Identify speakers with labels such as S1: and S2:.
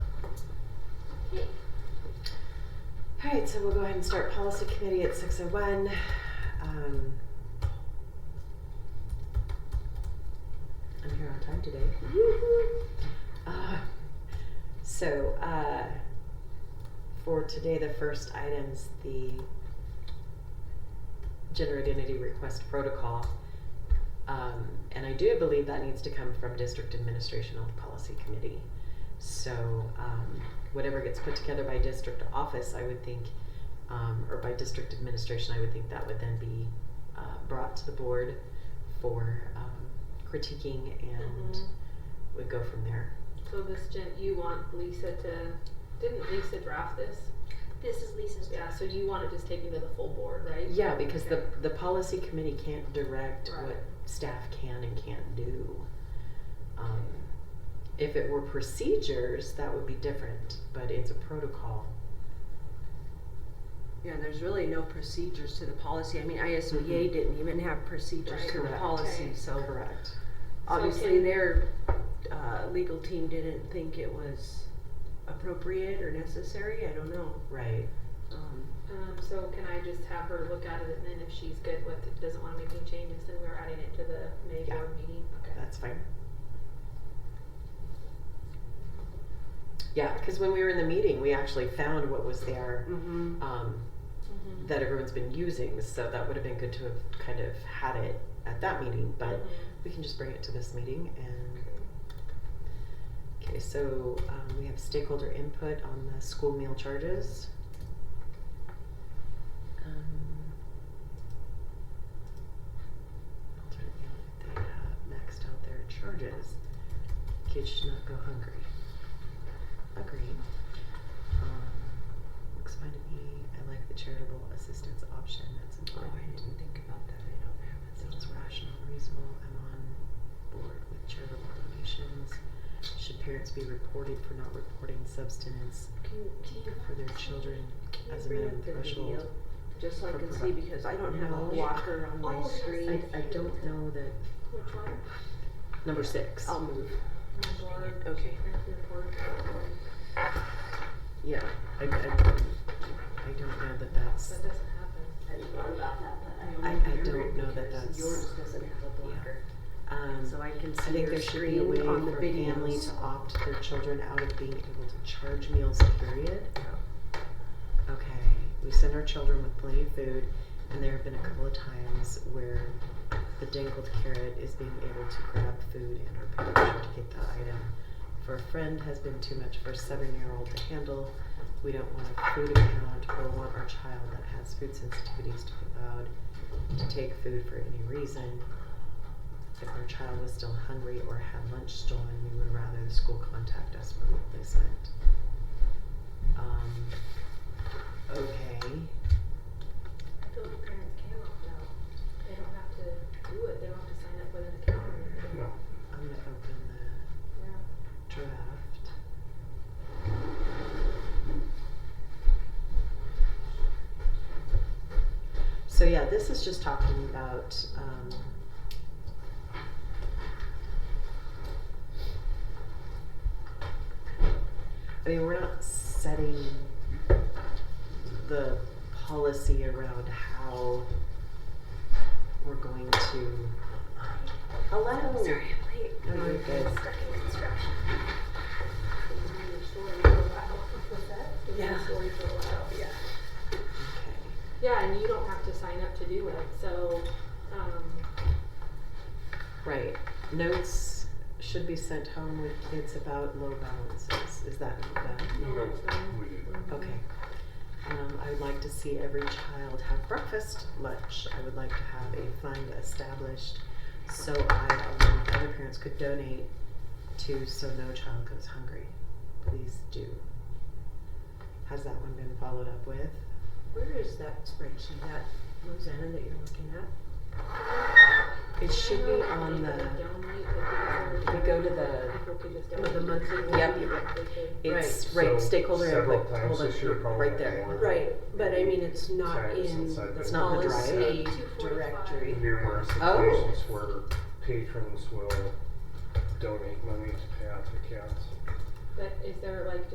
S1: right, so we'll go ahead and start policy committee at six oh one. Um. I'm here on time today. Uh, So, uh, for today, the first item's the gender identity request protocol. Um, and I do believe that needs to come from district administration of the policy committee. So, um, whatever gets put together by district office, I would think, um, or by district administration, I would think that would then be, uh, brought to the board for, um, critiquing and
S2: Mhm.
S1: would go from there.
S2: So this gen, you want Lisa to, didn't Lisa draft this?
S3: This is Lisa's
S2: Yeah,
S3: draft.
S2: so you want it just taken to the full board, right?
S1: Yeah, because the,
S2: Okay.
S1: the policy committee can't direct
S2: Right.
S1: what staff can and can't do. Um, If it were procedures, that would be different, but it's a protocol.
S4: Yeah, there's really no procedures to the policy. I mean, ISBA
S1: Mhm.
S4: didn't even have procedures
S2: Right.
S4: to the
S1: Correct.
S4: policy,
S2: Okay.
S4: so
S1: Correct.
S4: obviously
S2: can-
S4: their, uh, legal team didn't think it was appropriate or necessary, I don't know.
S1: Right.
S4: Um,
S2: Um, so can I just have her look at it and then if she's good with it, doesn't wanna make any changes, then we're adding it to the May
S1: Yeah.
S2: board meeting, okay?
S1: That's fine. Yeah, because when we were in the meeting, we actually found what was there
S4: mhm.
S1: um,
S2: Mhm.
S1: that everyone's been using, so that would have been good to have kind of had it at that meeting, but
S2: Mhm.
S1: we can just bring it to this meeting and
S2: Okay.
S1: Okay, so um, we have stakeholder input on the school meal charges. Um, Alternate meal, if they have maxed out their charges. Kids should not go hungry. Agreed. Um, Looks fine to me. I like the charitable assistance option. That's
S4: Oh,
S1: important.
S4: I didn't think about that, I don't have it.
S1: Sounds rational, reasonable, I'm on board with charitable donations. Should parents be reported for not reporting substance for their children as a minimum threshold?
S4: Just so I
S1: for
S4: can
S1: pro-
S4: see, because I don't have a
S1: No.
S4: walker on my
S3: Oh, yes,
S1: I,
S4: screen.
S1: I don't know that, Um,
S2: Which one?
S1: number six,
S4: I'll move.
S2: My board.
S4: Okay.
S2: parent report, board.
S1: yeah, I, I, I don't know that that's,
S2: That doesn't happen.
S3: I thought about that, but I
S1: I- I
S3: don't remember
S1: don't
S3: it
S1: know that
S3: because
S1: that's-
S3: Yours doesn't have a blocker.
S1: um,
S4: So I can
S1: I
S4: see
S1: think
S4: your
S1: there should be a way
S4: screen on the
S1: for a family
S4: videos.
S1: to opt their children out of being able to charge meals, period. Okay, we send our children with plenty of food, and there have been a couple of times where the dangled carrot is being able to grab food, and our parents should get that item. For a friend has been too much for a seven-year-old to handle. We don't want a food account or want our child that has food sensitivities to be allowed to take food for any reason. If our child was still hungry or had lunch stolen, we would rather the school contact us for replacement. Um, okay.
S2: Those parents can opt out. They don't have to do it. They don't have to sign up with an account or anything.
S1: I'm gonna open the
S2: Yeah.
S1: draft. So yeah, this is just talking about, um, I mean, we're not setting the policy around how we're going to. Hello.
S3: Sorry, I'm late.
S1: No, you're good.
S3: I'm Stuck in construction.
S2: Yeah. yeah.
S1: Okay.
S2: and you don't have to sign up to do it. So, um,
S1: Right. Notes should be sent home with kids about low balances. Is that not bad?
S2: No,
S5: We did that.
S1: Okay. Um, I would like to see every child have breakfast, lunch. I would like to have a fund established so I, along with other parents, could donate to so no child goes hungry. Please do. Has that one been followed up with?
S4: Where is that spreadsheet, that Rosanna that you're looking at?
S1: It should be on
S2: Donate,
S1: the.
S2: but because
S1: we go to
S2: they're-
S1: the-
S2: people could just
S4: Oh, the
S2: donate.
S4: monthly
S1: Yep.
S4: one?
S2: They could-
S1: It's
S5: Right.
S1: right,
S5: So
S1: stakeholder
S5: several
S1: input.
S5: times
S1: Hold on,
S5: this year, probably
S1: right there.
S5: more.
S4: Right, but I mean, it's not
S5: Sorry, it's
S4: in
S5: inside
S4: the
S5: the-
S1: not the drive.
S4: policy
S2: 245.
S4: directory.
S5: numerous
S1: Oh.
S5: occasions where patrons will donate money to pay out to accounts.
S2: But is there like